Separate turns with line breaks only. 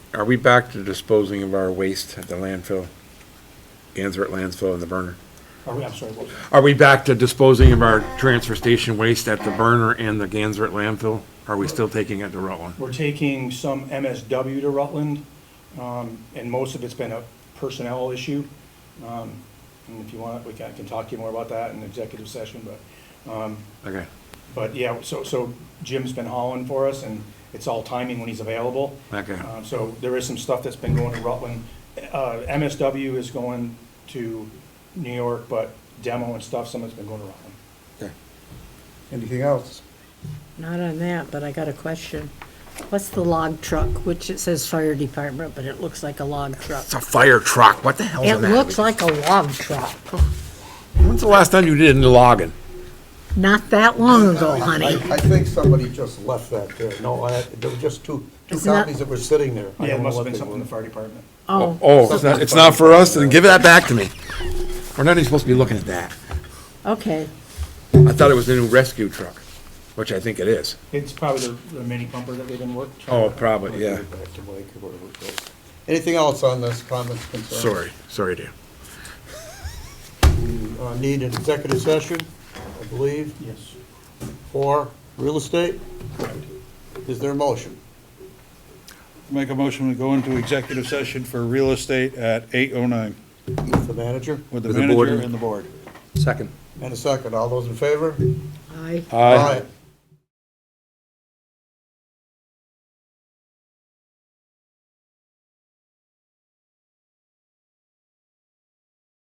Are we back to disposing of our waste at the landfill? Answer at landfill and the burner?
Are we, I'm sorry, what was that?
Are we back to disposing of our transfer station waste at the burner and the Gansert landfill? Are we still taking it to Rutland?
We're taking some MSW to Rutland, um, and most of it's been a personnel issue. Um, and if you want, we can, I can talk to you more about that in executive session, but, um,
Okay,
but yeah, so, so Jim's been hauling for us, and it's all timing when he's available.
Okay.
Um, So there is some stuff that's been going to Rutland. Uh, MSW is going to New York, but demo and stuff, some of it's been going to Rutland.
okay.
Anything else?
Not on that, but I got a question. What's the log truck, which it says fire department, but it looks like a log truck?
It's a fire truck, what the hell
It
is that?
looks like a log truck.
When's the last time you did any logging?
Not that long ago,
I,
honey.
I think somebody just left that there. No, I, there were just two, two
It's not-
copies that were sitting there. I
Yeah, it
don't know
must have
what
been
they
something in
were.
the fire department.
Oh,
Oh, it's not, it's not for us, then give that back to me. We're not even supposed to be looking at that.
okay.
I thought it was the new rescue truck, which I think it is.
It's probably the, the mini pumper that they've been working.
Oh, probably, yeah.
Back to Mike or whatever it was. Anything else on this, comments, concerns?
Sorry, sorry, dear.
We, uh, Need an executive session, I believe,
Yes.
for real estate? Is there a motion?
Make a motion to go into executive session for real estate at 8:09
With the manager?
with the
With the board.
manager and the board.
Second.
And a second, all those in favor?
I,
Aye.